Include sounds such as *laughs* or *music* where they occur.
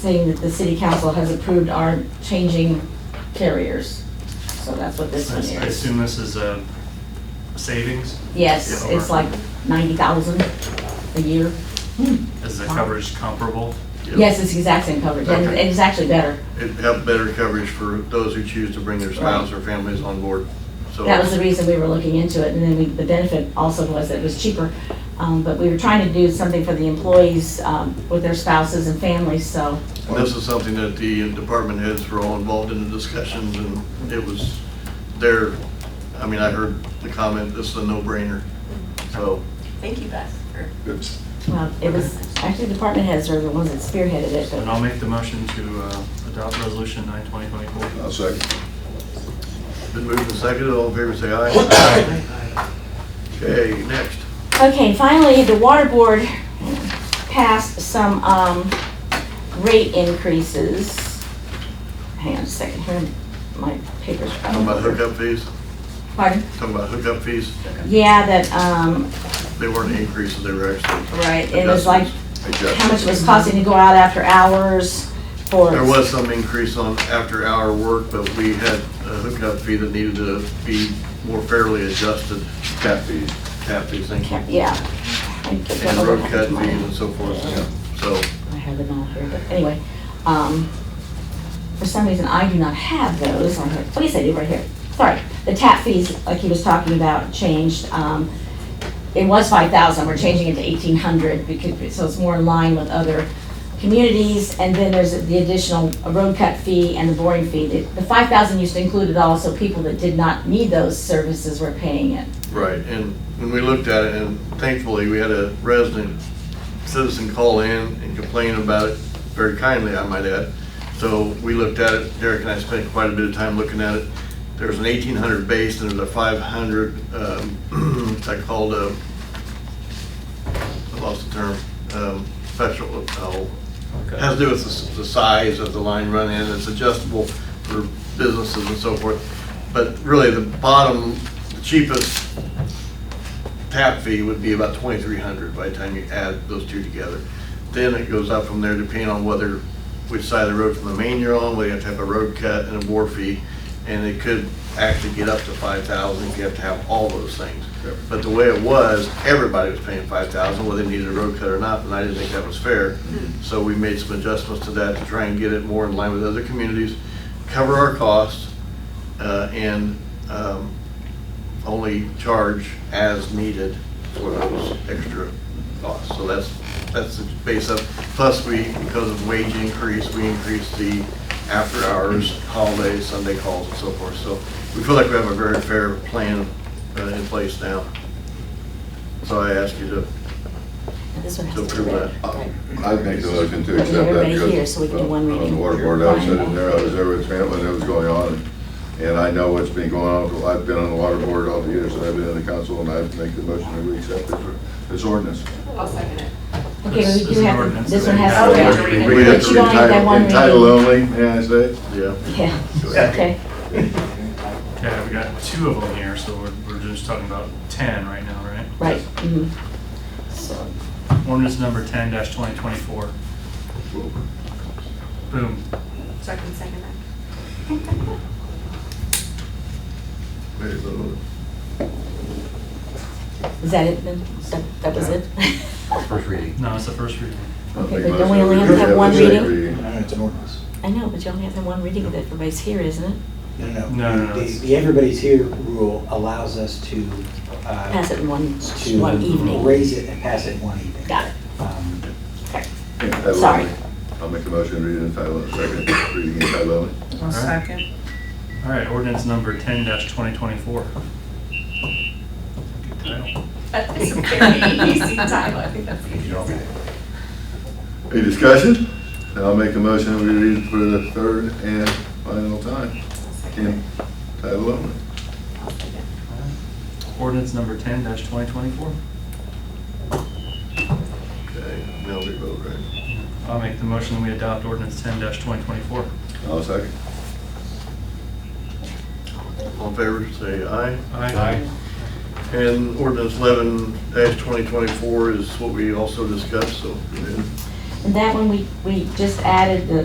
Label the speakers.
Speaker 1: saying that the city council has approved our changing carriers. So that's what this
Speaker 2: I
Speaker 1: one is.
Speaker 2: I assume this is a savings,
Speaker 1: Yes,
Speaker 2: Yeah,
Speaker 1: it's
Speaker 2: or-
Speaker 1: like ninety thousand a year.
Speaker 2: is the
Speaker 1: Wow.
Speaker 2: coverage comparable?
Speaker 1: Yes, it's the exact same coverage, and
Speaker 3: Okay.
Speaker 1: it's actually better.
Speaker 3: It'd have better coverage for those who choose to bring their spouses or families on board. So
Speaker 1: That was the reason we were looking into it, and then we, the benefit also was that it was cheaper. Um, but we were trying to do something for the employees, um, with their spouses and families, so,
Speaker 3: and this is something that the department heads were all involved in the discussions and it was their, I mean, I heard the comment, this is a no-brainer. So
Speaker 4: Thank you, Beth, for
Speaker 5: Good.
Speaker 1: well, uh, it was, actually, department heads are the ones that spearheaded it,
Speaker 2: And
Speaker 1: but
Speaker 2: I'll make the motion to uh, adopt resolution nine twenty twenty-four.
Speaker 5: I'll second.
Speaker 3: been moved and seconded, all in favor say aye. Okay, next.
Speaker 1: Okay, finally, the water board passed some um, rate increases. Hang on a second here, my papers.
Speaker 3: Talking about hookup fees,
Speaker 1: Pardon?
Speaker 3: talking about hookup fees,
Speaker 1: Yeah, that, um,
Speaker 3: they weren't increases, they were actually.
Speaker 1: right, it was like
Speaker 5: Hey, Jeff.
Speaker 1: how much it was costing to go out after hours for.
Speaker 3: There was some increase on after-hour work, but we had a hookup fee that needed to be more fairly adjusted.
Speaker 5: Tap fees.
Speaker 3: tap fees, thank you.
Speaker 1: Yeah. I don't
Speaker 3: And
Speaker 1: know
Speaker 3: road
Speaker 1: what
Speaker 3: cut fees
Speaker 1: mine-
Speaker 3: and so forth, yeah. so.
Speaker 1: I have them all here, but anyway, um, for some reason, I do not have those on here. What do you say, do right here? Sorry, the tap fees, like he was talking about, changed, um, it was five thousand, we're changing it to eighteen hundred, because, so it's more in line with other communities, and then there's the additional road cut fee and the boring fee. The- The five thousand used to include it all, so people that did not need those services were paying it.
Speaker 3: Right, and when we looked at it, and thankfully, we had a resident citizen call in and complain about it, very kindly, I might add. So we looked at it, Derek and I spent quite a bit of time looking at it. There's an eighteen hundred base, and there's a five hundred, um, *clears throat* it's like called a, I lost the term, um, special, oh, has to do with the s- the size of the line run in, it's adjustable for businesses and so forth. But really, the bottom, the cheapest tap fee would be about twenty-three hundred by the time you add those two together. Then it goes up from there depending on whether, which side of the road from the main you're on, whether you have to have a road cut and a bore fee. And it could actually get up to five thousand if you have to have all those things. But the way it was, everybody was paying five thousand, whether they needed a road cut or not, and I didn't think that was fair. So we made some adjustments to that to try and get it more in line with other communities, cover our costs, uh, and, um, only charge as needed for those extra costs. So that's, that's the base up. Plus, we, because of wage increase, we increased the after hours, holidays, Sunday calls and so forth. So we feel like we have a very fair plan uh, in place now. So I ask you to,
Speaker 1: And This one has
Speaker 3: So
Speaker 1: to be
Speaker 3: prove
Speaker 1: read.
Speaker 3: that.
Speaker 1: Right.
Speaker 5: I'd make the motion to
Speaker 1: Get
Speaker 5: accept that.
Speaker 1: everybody
Speaker 5: because,
Speaker 1: here so we can do
Speaker 5: uh,
Speaker 1: one reading.
Speaker 5: On the water board, I was sitting there, I was there with Trent when it was going on, and- and I know what's been going on. I've been on the water board all the years that I've been in the council, and I'd make the motion that we accept this, this ordinance.
Speaker 4: I'll second it.
Speaker 1: Okay,
Speaker 2: This
Speaker 1: we
Speaker 2: is
Speaker 1: do
Speaker 2: an
Speaker 1: have,
Speaker 2: ordinance
Speaker 1: this
Speaker 2: that
Speaker 1: one
Speaker 2: we
Speaker 1: has
Speaker 2: have
Speaker 1: to
Speaker 4: to
Speaker 1: read.
Speaker 4: read.
Speaker 5: We
Speaker 1: But
Speaker 5: have to
Speaker 1: you only
Speaker 5: entitle-
Speaker 1: have one
Speaker 5: in title
Speaker 1: reading.
Speaker 5: only, may I say?
Speaker 3: yeah.
Speaker 1: Yeah, okay.
Speaker 2: Okay, we got two of them here, so we're, we're just talking about ten right now, right?
Speaker 1: Right. mhm. So,
Speaker 2: Ordinance number ten twenty twenty-four. Boom.
Speaker 4: So I can second that.
Speaker 3: Very good.
Speaker 1: is that it then? Is That that was it? *laughs*
Speaker 6: First reading.
Speaker 2: No, it's the first reading.
Speaker 5: I'll
Speaker 1: Okay,
Speaker 5: make
Speaker 1: but
Speaker 5: a
Speaker 1: don't
Speaker 5: motion
Speaker 1: we only
Speaker 5: that
Speaker 1: have to have
Speaker 5: the
Speaker 1: one
Speaker 5: second
Speaker 1: reading?
Speaker 7: No, it's an ordinance.
Speaker 1: I know, but you only have to have one reading that everybody's here, isn't it?
Speaker 7: No,
Speaker 2: No, no, no,
Speaker 7: The-
Speaker 2: it's-
Speaker 7: The everybody's here rule allows us to. uh,
Speaker 1: Pass it in one,
Speaker 7: to
Speaker 1: one evening.
Speaker 7: Raise it and pass it in one evening.
Speaker 1: Got it.
Speaker 7: Um,
Speaker 5: Title only.
Speaker 1: Sorry.
Speaker 5: I'll make a motion, to read it in title, only, second, reading in title only.
Speaker 2: All right. All right, ordinance number ten twenty twenty-four. Good title.
Speaker 4: But it's a very easy title, I think that's easy.
Speaker 5: Any discussion? Then I'll make a motion, we read it for the third and final time,
Speaker 4: I'll second it.
Speaker 5: in title only.
Speaker 4: I'll second it.
Speaker 2: Ordinance number ten twenty twenty-four.
Speaker 3: Okay, now we vote, right?
Speaker 2: I'll make the motion that we adopt ordinance ten twenty twenty-four.
Speaker 5: I'll second.
Speaker 3: All in favor say aye.
Speaker 2: Aye.
Speaker 3: And ordinance eleven twenty twenty-four is what we also discussed, so.
Speaker 1: And that one, we, we just added the